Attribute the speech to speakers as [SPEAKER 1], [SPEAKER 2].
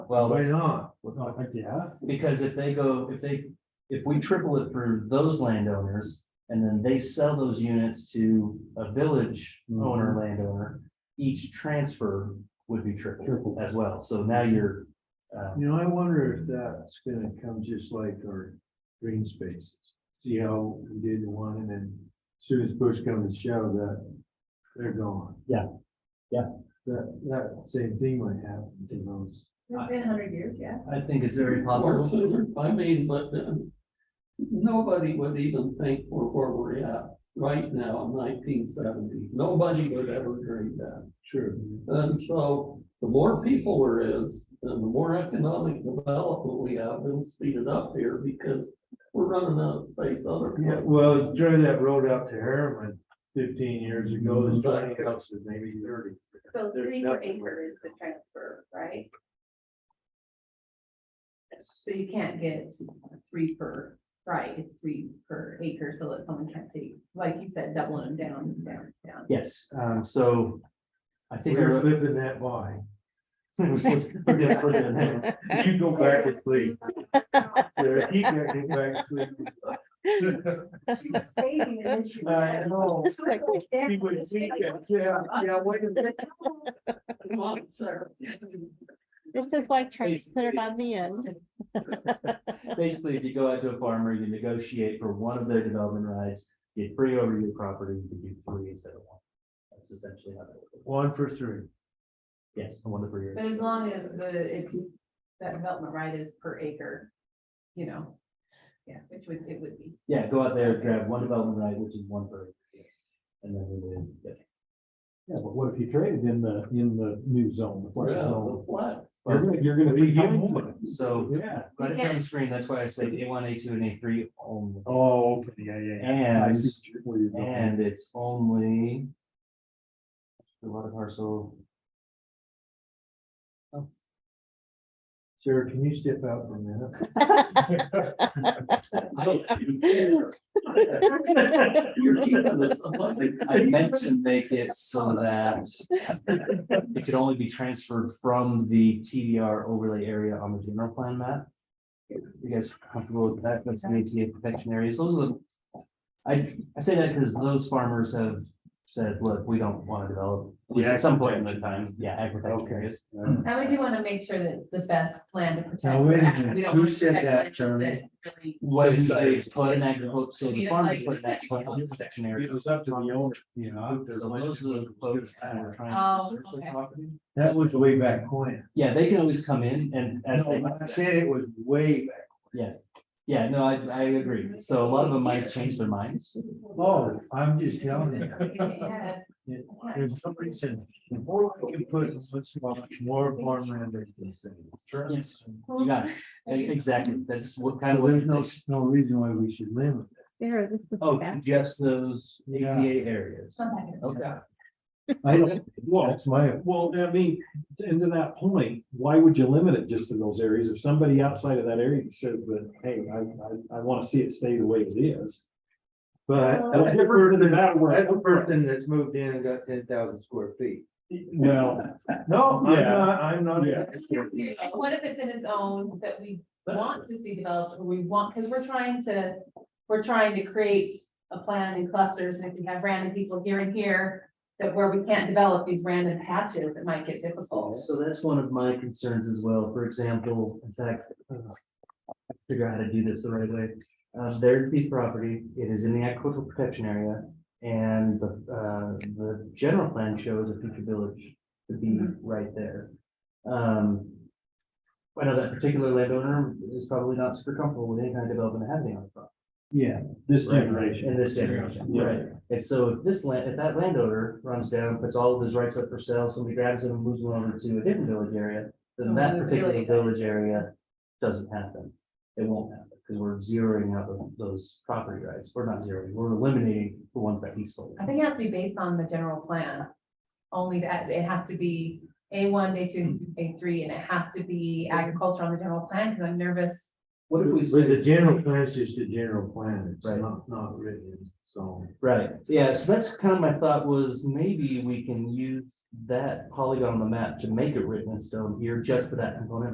[SPEAKER 1] Well,
[SPEAKER 2] Why
[SPEAKER 1] that's-
[SPEAKER 2] not? Well, I think, yeah,
[SPEAKER 1] because if they go, if they, if we triple it for those landowners and then they sell those units to a village owner, landowner, each transfer would be triple
[SPEAKER 2] Triple.
[SPEAKER 1] as well. So now you're, uh,
[SPEAKER 2] you know, I wonder if that's gonna come just like our green spaces. See how we did the one and then as soon as push comes to shove that they're gone.
[SPEAKER 1] Yeah. Yeah.
[SPEAKER 2] That, that same thing might happen to those.
[SPEAKER 3] It's been a hundred years, yeah.
[SPEAKER 1] I think it's very
[SPEAKER 4] Well,
[SPEAKER 1] possible.
[SPEAKER 4] so, I mean, but um, nobody would even think we're where we're at right now in nineteen seventy. Nobody would ever dream that.
[SPEAKER 2] True.
[SPEAKER 4] And so the more people there is, and the more economic development we have, it'll speed it up here because we're running out of space other
[SPEAKER 2] Yeah,
[SPEAKER 4] places.
[SPEAKER 2] well, drive that road out to Harriman fifteen years ago,
[SPEAKER 1] Mm-hmm.
[SPEAKER 2] there's
[SPEAKER 4] Mhm.
[SPEAKER 2] twenty houses, maybe thirty.
[SPEAKER 3] So
[SPEAKER 2] There's
[SPEAKER 3] three per
[SPEAKER 2] nothing.
[SPEAKER 3] acre is the transfer, right? So you can't get three per, right, it's three per acre, so that someone can't take, like you said, doubling them down, down, down.
[SPEAKER 1] Yes, um, so I think. I
[SPEAKER 2] We're
[SPEAKER 1] wrote-
[SPEAKER 2] living that by.
[SPEAKER 1] We're just looking at that.
[SPEAKER 2] You go back to sleep. Sarah, you gotta get back to sleep. I know. He would think that, Yeah, yeah, wait a minute.
[SPEAKER 4] Come on, Sarah.
[SPEAKER 5] This is why Trace put it on the end.
[SPEAKER 1] Basically, if you go out to a farmer, you negotiate for one of their development rights, get free over your property, you do three instead of one. That's essentially how that works.
[SPEAKER 2] One for three.
[SPEAKER 1] Yes, I wonder for your.
[SPEAKER 3] But as long as the, it's, that development right is per acre, you know, yeah, which would, it would be.
[SPEAKER 1] Yeah, go out there, grab one development right, which is one per. acre, yes. And then we will, yeah.
[SPEAKER 6] Yeah, but what if you traded in the, in the new zone, the
[SPEAKER 4] Yeah,
[SPEAKER 6] flat zone?
[SPEAKER 4] the flex.
[SPEAKER 6] You're
[SPEAKER 1] Well,
[SPEAKER 6] gonna, you're gonna be.
[SPEAKER 2] We get
[SPEAKER 6] coming
[SPEAKER 2] more.
[SPEAKER 6] to-
[SPEAKER 1] So,
[SPEAKER 6] Yeah.
[SPEAKER 1] right up on the screen, that's why I say A one, A two, and A three only,
[SPEAKER 6] Oh, okay, yeah, yeah, yeah. I
[SPEAKER 1] and,
[SPEAKER 6] see where you're going.
[SPEAKER 1] and it's only. A lot of parcel,
[SPEAKER 2] Sarah, can you step out for a minute?
[SPEAKER 4] You're keeping this among the-
[SPEAKER 1] I meant to make it so that. It could only be transferred from the TDR overlay area on the general plan map. You guys are comfortable with that, that's the ATA protection areas, those are the. I, I say that because those farmers have said, look, we don't want to develop, at least at some point in the time, yeah, agricultural
[SPEAKER 2] Okay.
[SPEAKER 1] areas.
[SPEAKER 3] And we do want to make sure that it's the best land to protect.
[SPEAKER 2] Now, wait a
[SPEAKER 3] We don't
[SPEAKER 2] minute.
[SPEAKER 3] wanna
[SPEAKER 2] Who said
[SPEAKER 3] protect
[SPEAKER 2] that,
[SPEAKER 3] land
[SPEAKER 2] Jeremy?
[SPEAKER 3] that really-
[SPEAKER 1] What is,
[SPEAKER 6] Sorry.
[SPEAKER 1] put an agricultural, so the
[SPEAKER 3] Yeah,
[SPEAKER 1] farmers
[SPEAKER 3] like-
[SPEAKER 1] put that protection area.
[SPEAKER 6] It was up to the owner, you know.
[SPEAKER 1] So those are the folks that we're trying to
[SPEAKER 3] Oh,
[SPEAKER 1] preserve the
[SPEAKER 3] okay.
[SPEAKER 1] property.
[SPEAKER 2] That was way back when.
[SPEAKER 1] Yeah, they can always come in and. as they-
[SPEAKER 2] No, I said it was way back.
[SPEAKER 1] Yeah, no, I, I agree. So a lot of them might change their minds.
[SPEAKER 2] Oh, I'm just telling you.
[SPEAKER 3] Yeah.
[SPEAKER 2] For some reason, the more we can put, let's watch more farmland than this thing.
[SPEAKER 1] Yes, you got it. E- Exactly. That's what kind of.
[SPEAKER 2] There's no, no reason why we should limit.
[SPEAKER 5] Sarah, this was
[SPEAKER 1] Oh,
[SPEAKER 5] back.
[SPEAKER 1] just those APA
[SPEAKER 6] Yeah.
[SPEAKER 1] areas.
[SPEAKER 3] Sometimes.
[SPEAKER 1] Okay.
[SPEAKER 2] I don't,
[SPEAKER 6] Well,
[SPEAKER 2] that's my,
[SPEAKER 6] well, I mean, and to that point, why would you limit it just to those areas? If somebody outside of that area says that, hey, I, I, I wanna see it stay the way it is.
[SPEAKER 2] but
[SPEAKER 6] That's different than that where-
[SPEAKER 2] that's the person that's moved in and got ten thousand square feet.
[SPEAKER 6] Well,
[SPEAKER 2] No, I'm
[SPEAKER 6] Yeah.
[SPEAKER 2] not, I'm not.
[SPEAKER 6] Yeah.
[SPEAKER 3] And what if it's in its own that we want to see developed, or we want, because we're trying to, we're trying to create a plan in clusters, and if we have random people here and here, that where we can't develop these random patches, it might get difficult.
[SPEAKER 1] So that's one of my concerns as well. For example, in fact. uh, Figure out how to do this the right way. Uh, there's piece of property. It is in the agricultural protection area. And the, uh, the general plan shows a future village to be right there. Um. I know that particular landowner is probably not super comfortable with any kind of development happening on the property.
[SPEAKER 6] yeah, this
[SPEAKER 1] Right,
[SPEAKER 6] generation.
[SPEAKER 1] In this generation,
[SPEAKER 6] Yeah.
[SPEAKER 1] right. And so if this land, if that landowner runs down, puts all of his rights up for sale, somebody grabs it and moves it over to a different village area, then
[SPEAKER 3] Oh,
[SPEAKER 1] that
[SPEAKER 3] that's
[SPEAKER 1] particular
[SPEAKER 3] really-
[SPEAKER 1] village area doesn't happen. It won't happen because we're zeroing out tho- those property rights. We're not zeroing, we're eliminating the ones that he sold.
[SPEAKER 3] I think it has to be based on the general plan, only that it has to be A one, A two, A three, and it has to be agriculture on the general plan, because I'm nervous.
[SPEAKER 1] What if we
[SPEAKER 2] But
[SPEAKER 1] say,
[SPEAKER 2] the general plan is just a general plan, it's
[SPEAKER 1] Right.
[SPEAKER 2] not, not written, so.
[SPEAKER 1] right, yeah, so that's kind of my thought was maybe we can use that polygon on the map to make it written in stone here just for that component